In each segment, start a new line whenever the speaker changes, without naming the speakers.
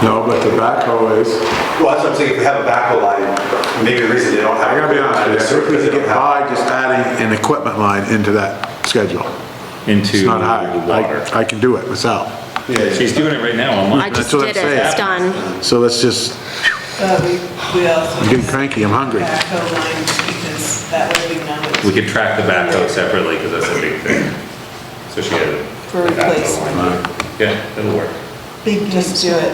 No, but the backhoe is,
Well, that's what I'm saying, if we have a backhoe line, maybe the reason they don't have.
I gotta be honest with you, I think we
They
could
don't
get by
have-
just adding an equipment line into that schedule. It's
into
not high.
the water.
I- I can do it myself.
She's doing it right now online.
I just
That's what I'm
did it, it's done.
So let's just,
But we, Uh, we also.
I'm getting cranky, I'm hungry.
Backhoe lines, because that way we know
We
it's
could track the backhoe separately because that's a big thing. So she had a
For
a backhoe
replacement.
line. Yeah, that'll work.
big, just do it.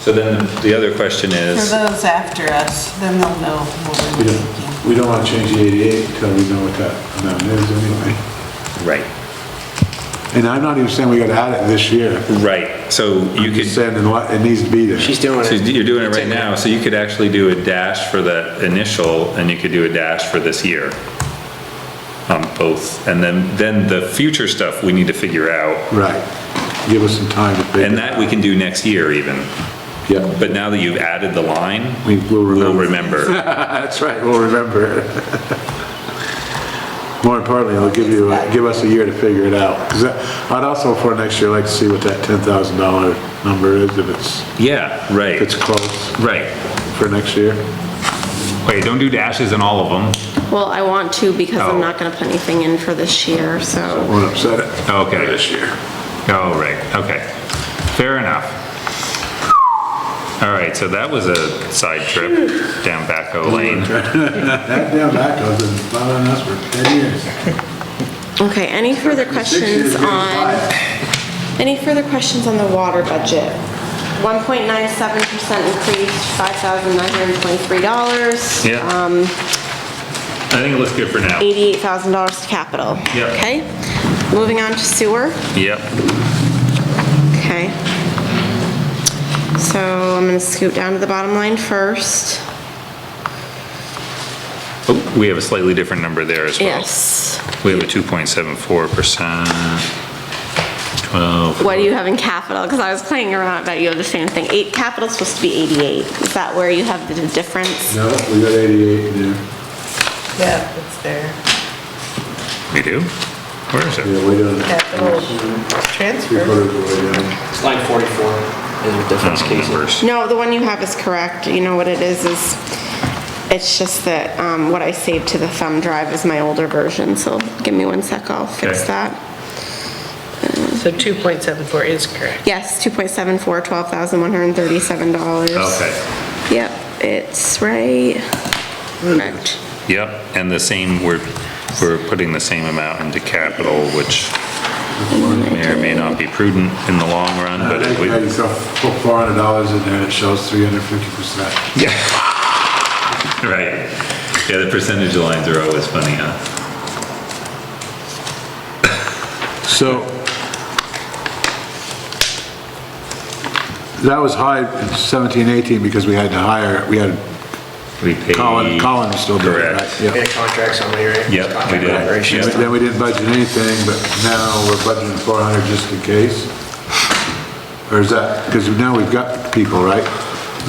So then the other question
For
is,
those after us, then they'll know what
We
we're
don't-
thinking.
We don't want to change the 88 until we know what that amount is anyway.
right,
And I'm not even saying we gotta add it this year.
right, so you
I'm just
could,
saying in what- it needs to be there.
She's doing
so
it.
you're doing it right now, so you could actually do a dash for the initial and you could do a dash for this year on both. And then, then the future stuff we need to figure out.
Right. Give us some time to figure.
And that we can do next year even.
Yeah.
But now that you've added the line,
We will
we'll
remember.
remember.
That's right, we'll remember. More importantly, it'll give you, give us a year to figure it out. 'Cause that- I'd also for next year like to see what that $10,000 number is, if it's,
Yeah,
if it's
right,
close
right.
for next year.
Wait, don't do dashes in all of them.
Well, I want to because
Oh.
I'm not gonna put anything in for this year, so.
Won't upset it.
Okay.
This year.
Oh, right, okay. Fair enough. All right, so that was a side trip down Backhoe Lane.
That damn backhoe's been bothering us for 10 years.
Okay, any further questions on, any further questions on the water budget? 1.97% increase, $5,923.
Yeah. I
Um,
think it looks good for now.
$88,000 to capital.
Yep.
Okay, moving on to sewer,
Yep,
okay. So I'm gonna scoot down to the bottom line first.
Oh, we have a slightly different number there as well.
Yes.
We have a 2.74%, 12,
What do you have in capital? Because I was playing around about you have the same thing. Eight, capital's supposed to be 88. Is that where you have the difference?
No, we got 88 in there.
Yeah, it's there.
we do? Where is it?
Yeah, way down.
Capital
Three
transfer.
quarters of the way down.
It's line 44 in the
Oh,
difference cases.
Numbers.
No, the one you have is correct. You know what it is, is it's just that um, what I saved to the thumb drive is my older version, so give me one sec, I'll fix
Okay.
that.
So 2.74 is correct.
Yes, 2.74, $12,137.
Okay,
Yep, it's right. Correct.
yep, and the same, we're, we're putting the same amount into capital, which may or may not be prudent in the long run,
I
but
think
if we...
that Uh, you saw four hundred dollars in there, and it shows three hundred fifty percent.
Yeah. Right. Yeah, the percentage lines are always funny, huh?
So that was high in seventeen, eighteen, because we had to hire, we had
We pay.
Colin, Colin was still doing it, right?
Correct.
Yeah.
We had a contract somebody, right?
Yep, we
Contract
did.
operations.
Yep.
Then we didn't budget anything, but now we're budgeting four hundred just in case? Or is that, because now we've got people, right?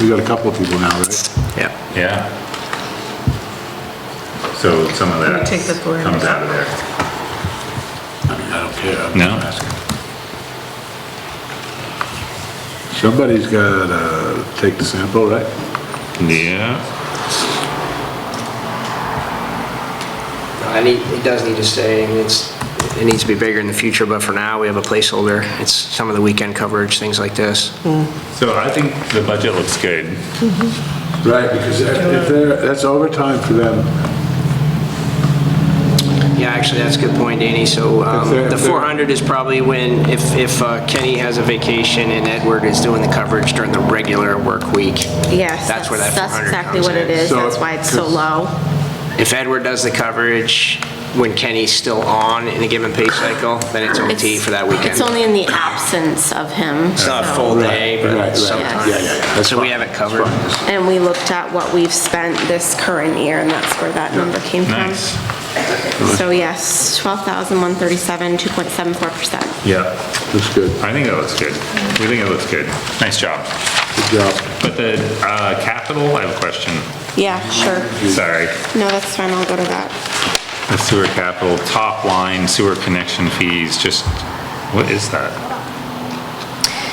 We've got a couple of people now, right?
Yeah.
Yeah. So some of that
take the floor.
comes out of there.
I mean, I don't care. I'm
No.
just asking. Somebody's gotta take the sample, right?
Yeah.
I need, it does need to stay, I mean, it's, it needs to be bigger in the future, but for now, we have a placeholder. It's some of the weekend coverage, things like this.
So I think the budget looks good.
Right, because if if they're, that's overtime for them.
Yeah, actually, that's a good point, Danny. So um,
If they're-
the
if they're-
400 is probably when, if, if uh, Kenny has a vacation and Edward is doing the coverage during the regular work week.
Yes,
That's where that
that's
400
exactly
comes
what it
in.
is.
So-
That's why it's so low.
If Edward does the coverage when Kenny's still on in a given pay cycle, then it's OT
It's-
for that weekend.
It's only in the absence of him.
It's not a
so-
full day,
Right,
but
right.
sometimes.
Yeah, yeah,
yeah. That's
So we
fine.
have it covered.
And we looked at what we've spent this current year, and that's where that number came from.
Nice.
So yes, 12,137, 2.74%.
Yeah.
That's good,
I think that looks good. We think it looks good. Nice job.
good job.
But the uh, capital, I have a question.
Yeah, sure.
Sorry.
No, that's fine, I'll go to that.
The sewer capital, top line sewer connection fees, just, what is that?